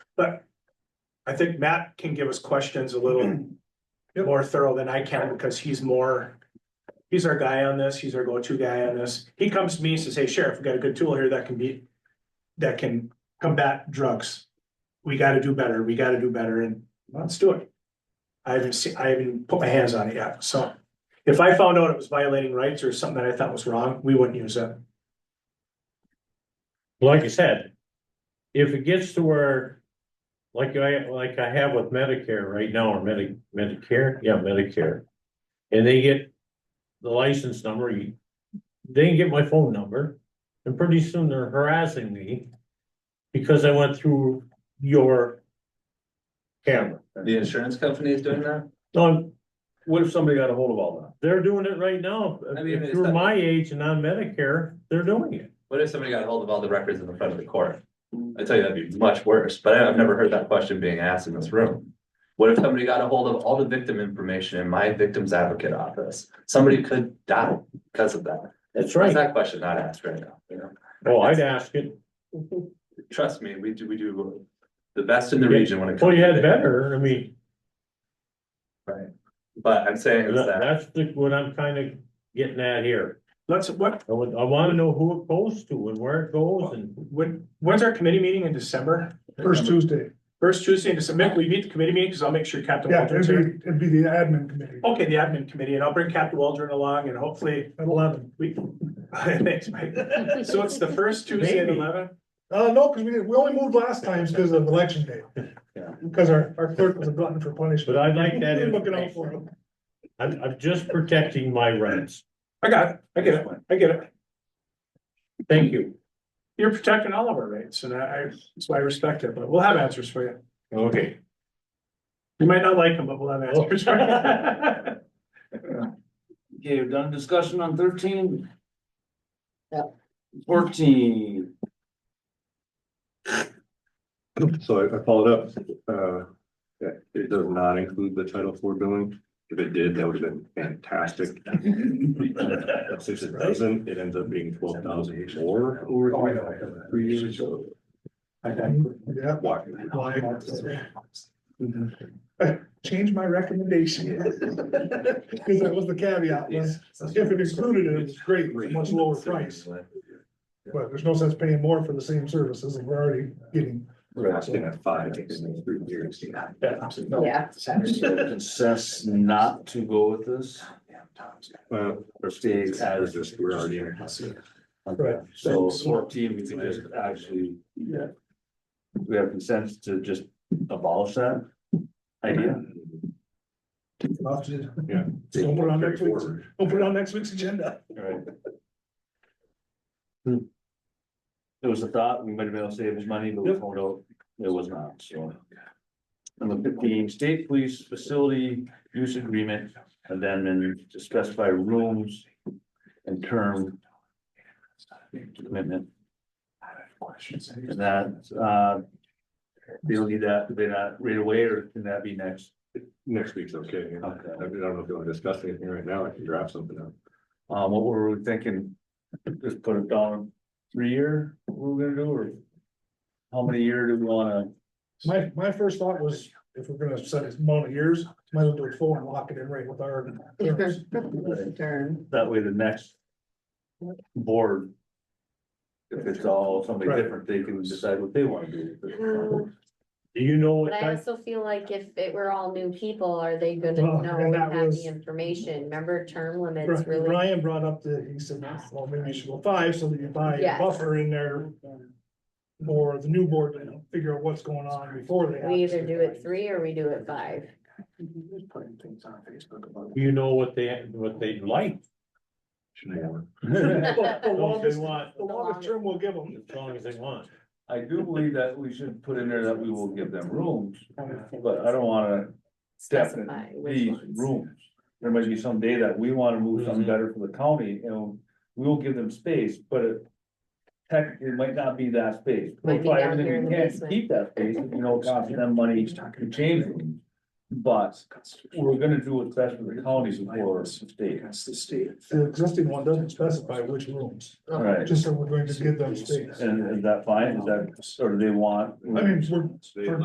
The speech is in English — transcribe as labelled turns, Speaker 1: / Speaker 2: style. Speaker 1: But I think Matt can give us questions a little more thorough than I can because he's more. He's our guy on this. He's our go-to guy on this. He comes to me and says, hey, Sheriff, we got a good tool here that can be, that can combat drugs. We gotta do better. We gotta do better and let's do it. I haven't seen, I haven't put my hands on it yet, so. If I found out it was violating rights or something that I thought was wrong, we wouldn't use it.
Speaker 2: like I said, if it gets to where, like I, like I have with Medicare right now, or Medi- Medicare, yeah, Medicare. And they get the license number, you- they can get my phone number, and pretty soon they're harassing me because I went through your camera.
Speaker 3: The insurance company is doing that?
Speaker 2: No,
Speaker 4: What if somebody got a hold of all that?
Speaker 2: they're doing it right now.
Speaker 3: I mean,
Speaker 2: If
Speaker 3: it's
Speaker 2: you're
Speaker 3: not-
Speaker 2: my age and on Medicare, they're doing it.
Speaker 3: What if somebody got hold of all the records in the front of the court? I tell you, that'd be much worse, but I- I've never heard that question being asked in this room. What if somebody got a hold of all the victim information in my victim's advocate office? Somebody could die because of that.
Speaker 2: That's
Speaker 3: Why is
Speaker 2: right.
Speaker 3: that question not asked right now? You know,
Speaker 2: Oh, I'd ask it.
Speaker 3: trust me, we do, we do the best in the region when it comes.
Speaker 2: Well, you
Speaker 3: to
Speaker 2: had
Speaker 3: victim-
Speaker 2: better, I mean.
Speaker 3: But I'm saying is
Speaker 2: That-
Speaker 3: that,
Speaker 2: That's the, what I'm kind of getting at here.
Speaker 1: Let's, what,
Speaker 2: I would, I want to know who it goes to and where it goes and
Speaker 1: when, when's our committee meeting in December?
Speaker 5: First Tuesday,
Speaker 1: First Tuesday in December, Mick, will you meet the committee meeting, because I'll make sure Captain
Speaker 5: yeah, it'd
Speaker 1: Waldron's
Speaker 5: be,
Speaker 1: here.
Speaker 5: it'd be the admin committee
Speaker 1: Okay, the admin committee, and I'll bring Captain Waldron along and hopefully
Speaker 5: at eleven.
Speaker 1: we. Thanks, Mike. So it's the first Tuesday at
Speaker 2: Maybe.
Speaker 1: eleven?
Speaker 5: Uh, no, because we, didn't- we only moved last time because of election day.
Speaker 3: Yeah.
Speaker 5: Because our, our clerk was a glutton for punishment.
Speaker 2: But I'd like that
Speaker 5: We're Looking out for him.
Speaker 2: I'm, I'm just protecting my rights.
Speaker 1: I got it, I get it, I get it.
Speaker 2: Thank you.
Speaker 1: You're protecting all of our rights, and I, I, that's why I respect it, but we'll have answers for you.
Speaker 2: Okay.
Speaker 1: You might not like them, but we'll have answers for you.
Speaker 4: Okay, we've done discussion on thirteen.
Speaker 6: Yep.
Speaker 4: Fourteen.
Speaker 7: So I- I followed up, uh, that it does not include the title four billing. If it did, that would have been fantastic. Since it doesn't, it ends up being twelve thousand more over three years. So
Speaker 5: Yeah,
Speaker 7: why?
Speaker 5: change my recommendation. Because that was the caveat, was if it included it, it's great, it's a much lower price, but there's no sense paying more for the same services and we're already getting.
Speaker 7: We're asking at five in three years.
Speaker 6: Yeah.
Speaker 4: Consess not to go with this.
Speaker 7: Well, our state has this, we're already in.
Speaker 5: Right.
Speaker 4: So fourteen, we can just actually.
Speaker 5: Yeah.
Speaker 4: We have consent to just abolish that idea.
Speaker 5: Don't put it on next week's, don't put it on next week's agenda.
Speaker 4: Right. It Hmm. was a thought, we might have been able to save us money, but we found out it was not, so. Number fifteen, state police facility use agreement, and then in- to specify rooms and term commitment, and that, uh. They'll need that, they not right away, or can that be next?
Speaker 7: Next week's okay. I
Speaker 4: Okay.
Speaker 7: don't know if you want to discuss anything right now. I can draft something up.
Speaker 4: Um, what were we thinking? Just put it down three year, what we're gonna do, or? How many year do we wanna,
Speaker 5: My, my first thought was, if we're gonna set it amount of years, might as well do it four and lock it in right with our. terms.
Speaker 6: Turn.
Speaker 4: that way the next. Board. If it's all somebody
Speaker 5: Right.
Speaker 4: different, they can decide what they wanna do.
Speaker 2: Do you know what
Speaker 8: Mm. But I
Speaker 2: type?
Speaker 8: also feel like if it were all new people, are they gonna
Speaker 5: Well,
Speaker 8: know
Speaker 5: and
Speaker 8: and
Speaker 5: that
Speaker 8: have
Speaker 5: was-
Speaker 8: the information? Remember term limits
Speaker 5: Bri-
Speaker 8: really?
Speaker 5: Brian brought up the, he said, well, maybe you should go five, so that you buy a
Speaker 8: Yes.
Speaker 5: buffer in there. Or the new board, you know, figure out what's going on before they. have
Speaker 8: We either
Speaker 5: to.
Speaker 8: do it three or we do it five.
Speaker 2: Do you know what they, what they'd like?
Speaker 7: Should I? uh,
Speaker 5: But The
Speaker 2: Don't they
Speaker 5: longest,
Speaker 2: want,
Speaker 5: the longest term we'll give them.
Speaker 2: as long as they want.
Speaker 4: I do believe that we should put in there that we will give them rooms, but I don't wanna
Speaker 8: Specify which
Speaker 4: definitely
Speaker 8: ones. Mm-hmm.
Speaker 4: rooms. There might be some day that we wanna move something
Speaker 2: Mhm.
Speaker 4: better for the county, and we will give them space, but it. Tech, it might not be that space.
Speaker 8: Might be
Speaker 4: We'll try
Speaker 8: down
Speaker 4: everything
Speaker 8: here in
Speaker 4: we
Speaker 8: the
Speaker 4: can to
Speaker 8: basement.
Speaker 4: Keep that space, if you know, it costs them money to change rooms. But we're gonna do what's best for the counties before the state.
Speaker 5: The existing one doesn't specify which rooms,
Speaker 4: Right,
Speaker 5: just so we're going to give them space.
Speaker 4: and is that fine, is that, or do they want?
Speaker 5: I mean, we're,
Speaker 7: They-
Speaker 5: for